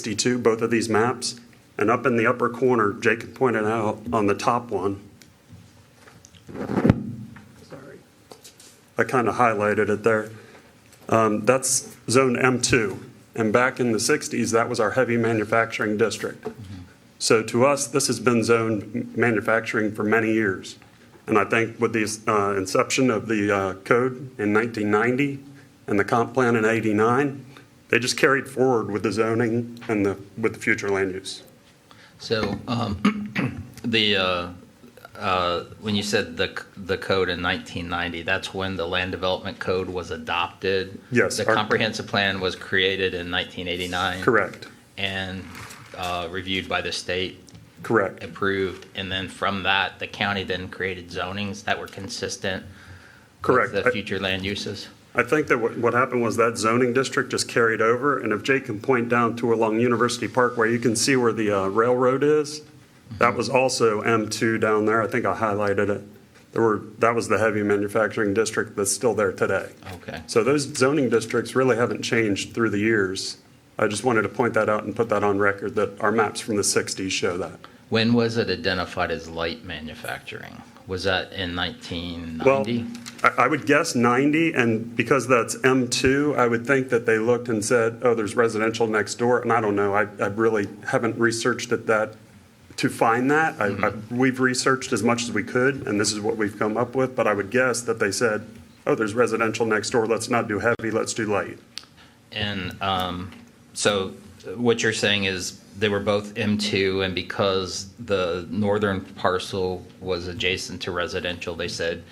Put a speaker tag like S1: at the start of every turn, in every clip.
S1: 62, both of these maps. And up in the upper corner, Jacob pointed out on the top one, sorry, I kind of highlighted it there. Um, That's zone M2. And back in the 60s, that was our heavy manufacturing district. So to us, this has been zone manufacturing for many years. And I think with the uh, inception of the uh, code in 1990 and the comp plan in 89, they just carried forward with the zoning and the, with the future land use.
S2: So, um, the, uh, uh, when you said the, c- the code in 1990, that's when the land development code was adopted?
S1: Yes,
S2: The
S1: our-
S2: comprehensive plan was created in 1989?
S1: Correct,
S2: And uh, reviewed by the state,
S1: correct.
S2: approved, and then from that, the county then created zonings that were consistent?
S1: Correct.
S2: With
S1: I-
S2: the future land uses?
S1: I think that what what happened was that zoning district just carried over, and if Jake can point down to along University Park where you can see where the uh, railroad is, that was also M2 down there, I think I highlighted it. There were, that was the heavy manufacturing district that's still there today.
S2: Okay.
S1: So those zoning districts really haven't changed through the years. I just wanted to point that out and put that on record, that our maps from the 60s show that.
S2: When was it identified as light manufacturing? Was that in 1990?
S1: Well, I, I would guess 90, and because that's M2, I would think that they looked and said, oh, there's residential next door, and I don't know, I, I really haven't researched it that, to find that.
S2: Mm-hmm.
S1: I, I, we've researched as much as we could, and this is what we've come up with, but I would guess that they said, oh, there's residential next door, let's not do heavy, let's do light.
S2: And um, so what you're saying is they were both M2, and because the northern parcel was adjacent to residential, they said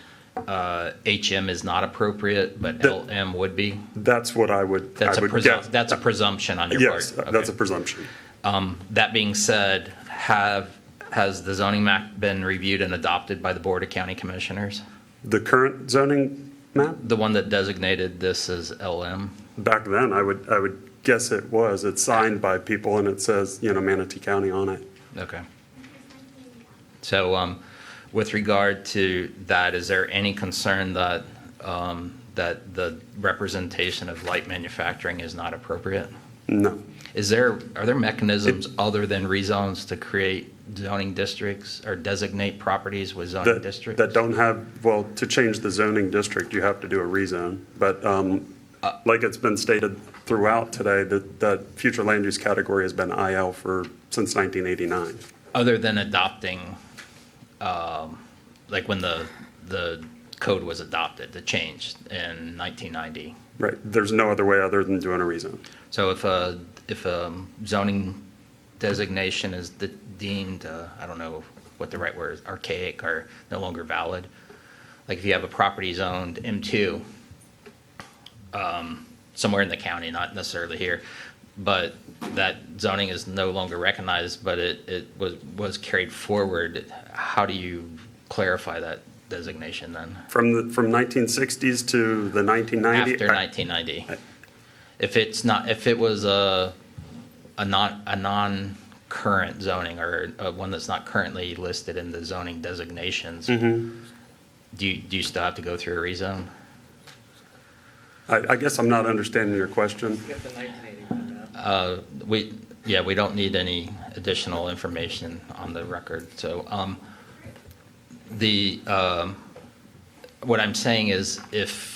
S2: uh, HM is not appropriate, but
S1: The-
S2: LM would be?
S1: That's what I would,
S2: That's
S1: I
S2: a
S1: would
S2: presumption,
S1: guess.
S2: that's a presumption on your part?
S1: Yes,
S2: Okay.
S1: that's a presumption.
S2: Um, That being said, have, has the zoning map been reviewed and adopted by the Board of County Commissioners?
S1: The current zoning map,
S2: The one that designated this as LM?
S1: back then, I would, I would guess it was, it's signed by people and it says, you know, Manatee County on it.
S2: Okay. So, um, with regard to that, is there any concern that, um, that the representation of light manufacturing is not appropriate?
S1: No.
S2: Is there, are there mechanisms other than rezones to create zoning districts or designate properties with zoning
S1: That,
S2: districts?
S1: that don't have, well, to change the zoning district, you have to do a rezone. But um, like it's been stated throughout today, that, that future land use category has been IL for, since 1989.
S2: Other than adopting, um, like when the, the code was adopted, the change in 1990?
S1: Right, there's no other way other than doing a rezone.
S2: So if a, if a zoning designation is de- deemed, uh, I don't know what the right word is, archaic or no longer valid, like if you have a property zoned M2, um, somewhere in the county, not necessarily here, but that zoning is no longer recognized, but it, it was, was carried forward, how do you clarify that designation then?
S1: From the, from 1960s to the 1990.
S2: after 1990. If it's not, if it was a, a non, a non-current zoning or uh, one that's not currently listed in the zoning designations, do you, do you still have to go through a rezone?
S1: I, I guess I'm not understanding your question.
S2: We, yeah, we don't need any additional information on the record, so, um, the, um, what I'm saying is if,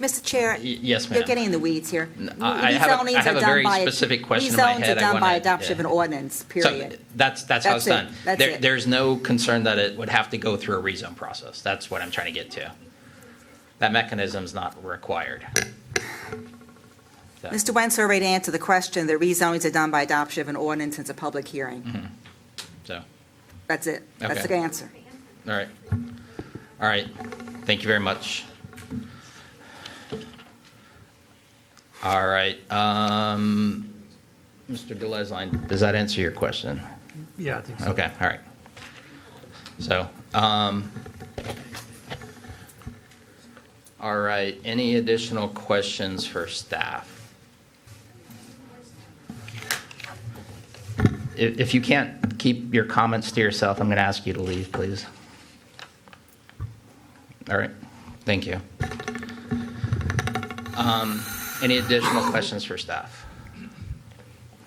S3: Mr. Chair?
S2: Y- yes,
S3: You're
S2: ma'am.
S3: getting in the weeds here.
S2: I- I have a- I
S3: Rezonings
S2: have
S3: are
S2: a
S3: done
S2: very
S3: by-
S2: specific question in my
S3: rezonings
S2: head
S3: are
S2: I
S3: done by
S2: wanna-
S3: adoption of
S2: yeah.
S3: an ordinance,
S2: So
S3: period.
S2: that's, that's how it's
S3: That's it.
S2: done.
S3: That's
S2: There-
S3: it.
S2: There's no concern that it would have to go through a rezone process. That's what I'm trying to get to. That mechanism's not required. uh,
S3: Mr. Wentz already answered the question, the rezonings are done by adoption of an ordinance, it's a public hearing.
S2: So,
S3: That's it. That's
S2: Mm-hmm. Okay.
S3: the answer.
S2: all right. All right. Thank you very much. All right. um, Mr. Gillesline, does that answer your question?
S4: Yeah, I think so.
S2: Okay, all right. So, um, all right, any additional questions for staff? If, if you can't keep your comments to yourself, I'm going to ask you to leave, please. All right, thank you. Um, any additional questions for staff?